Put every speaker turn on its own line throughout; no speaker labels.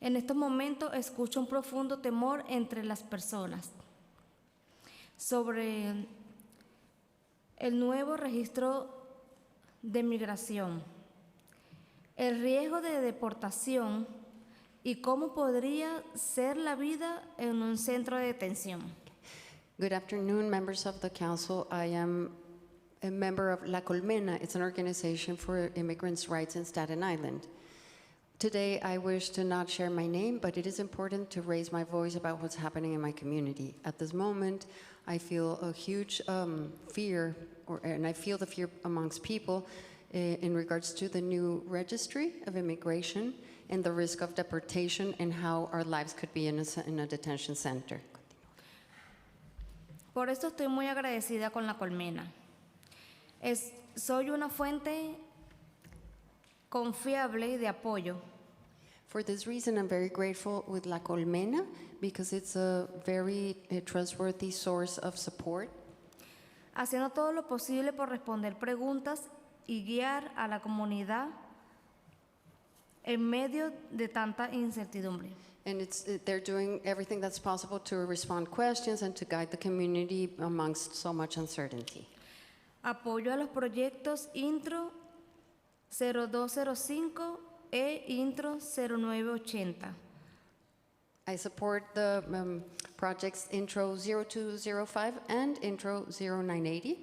En estos momentos escucho un profundo temor entre las personas sobre el nuevo registro de migración, el riesgo de deportación y cómo podría ser la vida en un centro de detención.
Good afternoon, members of the council. I am a member of La Colmena. It's an organization for immigrants' rights in Staten Island. Today, I wish to not share my name, but it is important to raise my voice about what's happening in my community. At this moment, I feel a huge um, fear, or, and I feel the fear amongst people uh, in regards to the new registry of immigration and the risk of deportation and how our lives could be in a, ce- in a detention center.
Por eso estoy muy agradecida con la colmena. Es- soy una fuente confiable de apoyo
For this reason, I'm very grateful with La Colmena because it's a very uh, trustworthy source of support
haciendo todo lo posible por responder preguntas y guiar a la comunidad en medio de tanta incertidumbre.
And it's, it- they're doing everything that's possible to respond questions and to guide the community amongst so much uncertainty.
Apoyo a los proyectos Intro 0205 e Intro 0980
I support the um, projects Intro 0205 and Intro 0980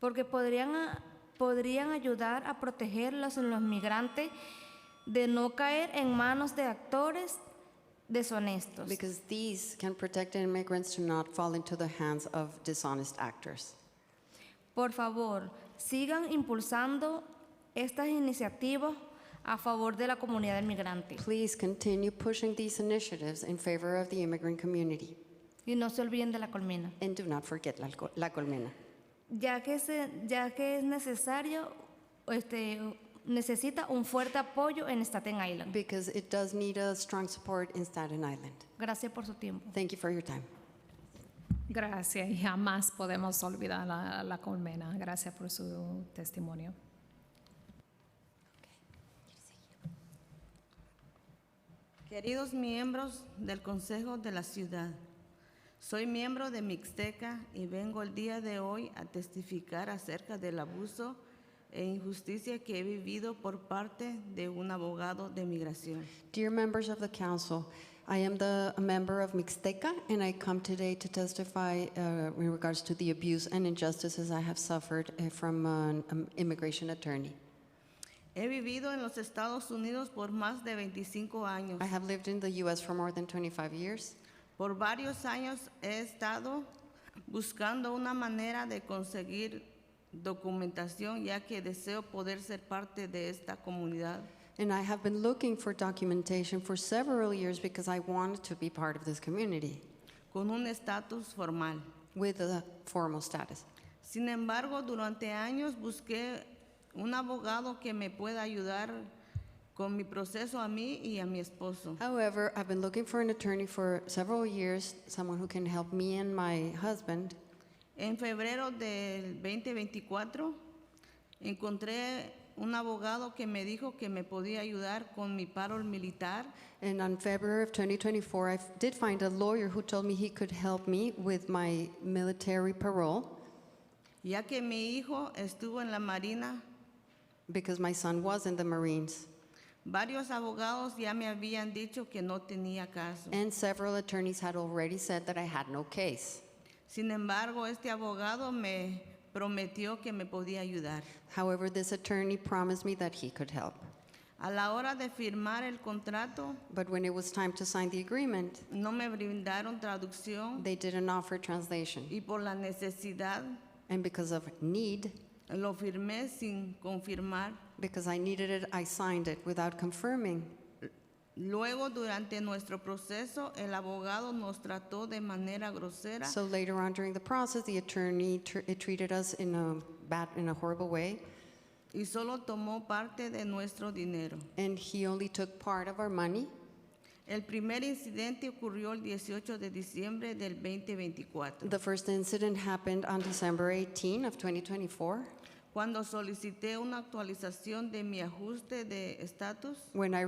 porque podrían, a- podrían ayudar a proteger a los, los migrantes de no caer en manos de actores deshonestos.
because these can protect immigrants to not fall into the hands of dishonest actors.
Por favor, sigan impulsando estas iniciativas a favor de la comunidad migrante
Please continue pushing these initiatives in favor of the immigrant community
y no se olviden de la colmena,
and do not forget La Col- La Colmena.
ya que, se- ya que es necesario, este, necesita un fuerte apoyo en Staten Island.
Because it does need a strong support in Staten Island.
Gracias por su tiempo.
Thank you for your time.
Gracias y jamás podemos olvidar a la colmena. Gracias por su testimonio.
Queridos miembros del Consejo de la Ciudad, soy miembro de Mixteca y vengo el día de hoy a testificar acerca del abuso e injusticia que he vivido por parte de un abogado de migración.
Dear members of the council, I am the a member of Mixteca, and I come today to testify uh, in regards to the abuse and injustices I have suffered uh, from an um, immigration attorney.
He vivido en los Estados Unidos por más de 25 años.
I have lived in the U.S. for more than 25 years.
Por varios años he estado buscando una manera de conseguir documentación ya que deseo poder ser parte de esta comunidad.
And I have been looking for documentation for several years because I wanted to be part of this community
con un estatus formal.
with a formal status.
Sin embargo, durante años busqué un abogado que me pueda ayudar con mi proceso a mí y a mi esposo.
However, I've been looking for an attorney for several years, someone who can help me and my husband.
En febrero del 2024 encontré un abogado que me dijo que me podía ayudar con mi paro militar
And on February of 2024, I f- did find a lawyer who told me he could help me with my military parole
ya que mi hijo estuvo en la Marina.
because my son was in the Marines.
Varios abogados ya me habían dicho que no tenía caso.
And several attorneys had already said that I had no case.
Sin embargo, este abogado me prometió que me podía ayudar.
However, this attorney promised me that he could help.
A la hora de firmar el contrato,
But when it was time to sign the agreement,
no me brindaron traducción
they didn't offer translation.
y por la necesidad
And because of need,
lo firmé sin confirmar.
because I needed it, I signed it without confirming.
Luego, durante nuestro proceso, el abogado nos trató de manera grosera
So later on during the process, the attorney tr- eh, treated us in a bad, in a horrible way.
y solo tomó parte de nuestro dinero.
and he only took part of our money.
El primer incidente ocurrió el 18 de diciembre del 2024,
The first incident happened on December 18 of 2024
cuando solicité una actualización de mi ajuste de estatus
when I